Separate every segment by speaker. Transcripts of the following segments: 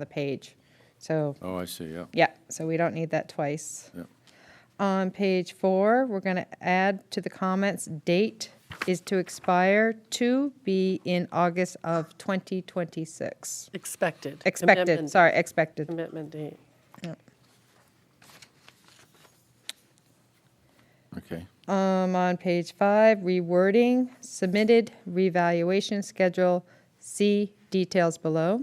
Speaker 1: the page. So,
Speaker 2: Oh, I see, yeah.
Speaker 1: yeah, so we don't need that twice.
Speaker 2: Yeah.
Speaker 1: On page four, we're going to add to the comments, date is to expire to be in August of 2026.
Speaker 3: Expected.
Speaker 1: Expected,
Speaker 3: Commitment-
Speaker 1: sorry, expected.
Speaker 3: Commitment date.
Speaker 2: Okay.
Speaker 1: Um, on page five, rewording, submitted revaluation schedule, see details below.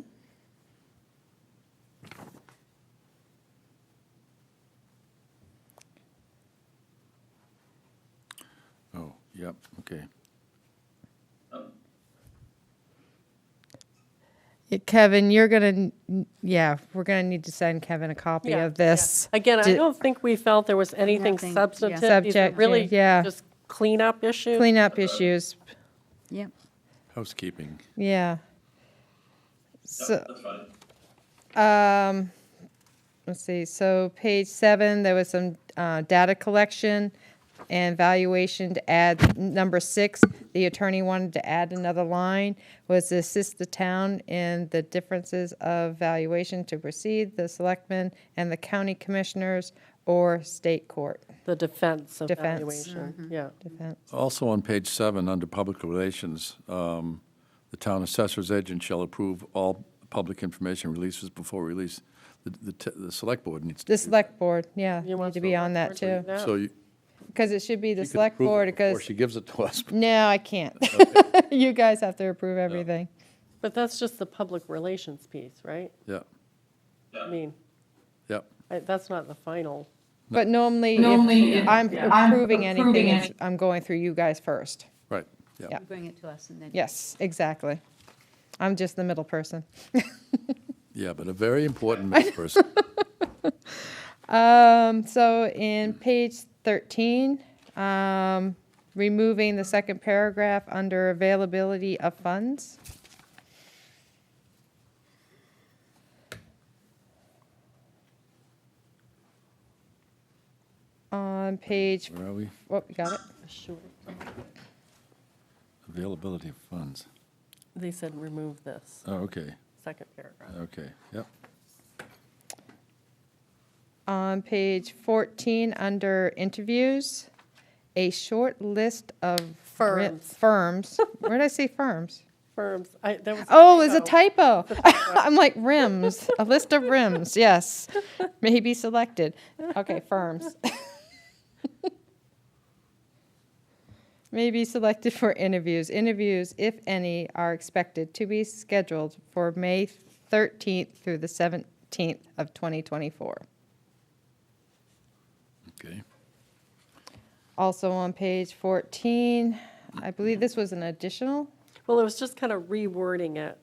Speaker 2: Oh, yep, okay.
Speaker 1: Yeah, Kevin, you're gonna, n- yeah, we're gonna need to send Kevin a copy
Speaker 3: Yeah,
Speaker 1: of this.
Speaker 3: yeah. Again, I
Speaker 1: Di-
Speaker 3: don't think we felt there was anything
Speaker 4: Nothing, yeah.
Speaker 3: substantive. These are
Speaker 1: Subject,
Speaker 3: really
Speaker 1: yeah.
Speaker 3: just cleanup issues.
Speaker 1: Cleanup issues,
Speaker 4: Yep.
Speaker 2: Housekeeping.
Speaker 1: yeah. So, um, let's see, so page seven, there was some, uh, data collection and valuation to add, number six, the attorney wanted to add another line, was to assist the town in the differences of valuation to proceed, the selectmen and the county commissioners or state court
Speaker 3: The defense of
Speaker 1: Defense. Mm-hmm.
Speaker 3: valuation, yeah.
Speaker 1: defense.
Speaker 2: Also on page seven, under public relations, um, the town assessor's agent shall approve all public information releases before release. The, the, t- the select board needs to.
Speaker 1: The select board, yeah,
Speaker 3: You
Speaker 1: need
Speaker 3: want
Speaker 1: to be on that
Speaker 3: select board
Speaker 1: too,
Speaker 3: to do that?
Speaker 2: So you.
Speaker 1: because it should be the
Speaker 2: you could
Speaker 1: select
Speaker 2: approve it
Speaker 1: board,
Speaker 2: before
Speaker 1: because,
Speaker 2: She gives it to us.
Speaker 1: no, I can't. You guys have to approve everything.
Speaker 3: But that's just the public relations piece, right?
Speaker 2: Yeah,
Speaker 3: I mean,
Speaker 2: yeah.
Speaker 3: I- that's not the final.
Speaker 1: But normally,
Speaker 5: Normally,
Speaker 1: if
Speaker 5: if
Speaker 1: I'm
Speaker 5: I'm
Speaker 1: approving anything,
Speaker 5: approving
Speaker 1: it's- I'm going through you guys first.
Speaker 2: right, yeah.
Speaker 1: Yeah.
Speaker 4: You bring it to us and then.
Speaker 1: Yes, exactly. I'm just the middle person.
Speaker 2: Yeah, but a very important middle person.
Speaker 1: Um, so in page thirteen, um, removing the second paragraph under availability of funds. On page,
Speaker 2: Where are we?
Speaker 1: oh, you got it?
Speaker 3: Sure.
Speaker 2: Availability of funds.
Speaker 3: They said remove this,
Speaker 2: Oh, okay,
Speaker 3: second paragraph.
Speaker 2: okay, yep.
Speaker 1: On page fourteen, under interviews, a short list of. ri-
Speaker 3: Firms.
Speaker 1: Firms. Where did I say firms?
Speaker 3: Firms, I, that was.
Speaker 1: Oh, it's a typo. I'm like rims, a list of rims. Yes, may be selected. Okay, firms. may be selected for interviews. Interviews, if any, are expected to be scheduled for May 13th through the 17th of 2024.
Speaker 2: Okay,
Speaker 1: Also on page 14, I believe this was an additional
Speaker 3: Well, it was just kind of rewording it.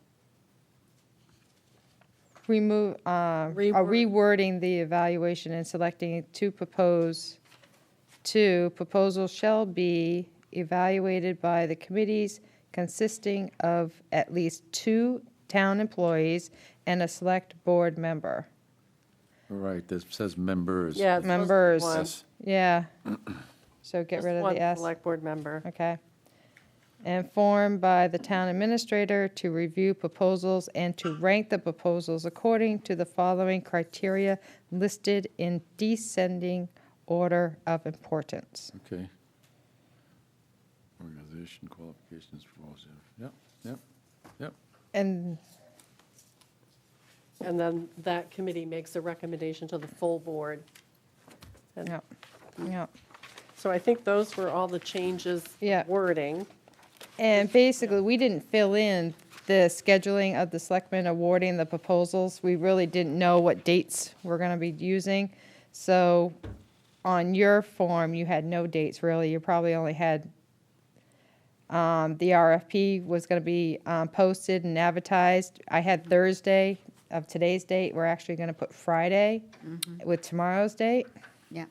Speaker 1: remove, uh, uh,
Speaker 3: Reword.
Speaker 1: rewording the evaluation and selecting to propose, to proposal shall be evaluated by the committees consisting of at least two town employees and a select board member.
Speaker 2: all right, this says members.
Speaker 3: Yeah. it's supposed to be
Speaker 1: Members.
Speaker 3: one.
Speaker 2: Yes.
Speaker 1: Yeah. So get
Speaker 3: Just
Speaker 1: rid of
Speaker 3: one
Speaker 1: the S.
Speaker 3: Select board member.
Speaker 1: Okay. And formed by the town administrator to review proposals and to rank the proposals according to the following criteria listed in descending order of importance.
Speaker 2: Okay. Organization qualifications proposal, yep, yep, yep.
Speaker 1: And,
Speaker 3: And then that committee makes a recommendation to the full board. And
Speaker 1: yeah, yeah.
Speaker 3: So I think those were all the changes.
Speaker 1: Yeah.
Speaker 3: Wording.
Speaker 1: And basically, we didn't fill in the scheduling of the selectmen awarding the proposals. We really didn't know what dates we're gonna be using. So on your form, you had no dates really. You probably only had, um, the RFP was gonna be, um, posted and advertised. I had Thursday of today's date. We're actually gonna put Friday with tomorrow's date.
Speaker 4: Yeah.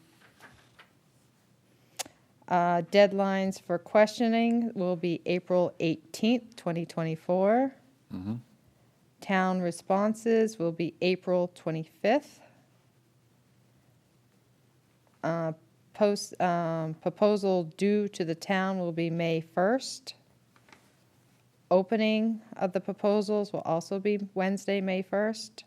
Speaker 1: Uh, Deadlines for questioning will be April 18th, 2024. Town responses will be April 25th. Uh, Post, um, proposal due to the town will be May 1st. Opening of the proposals will also be Wednesday, May 1st.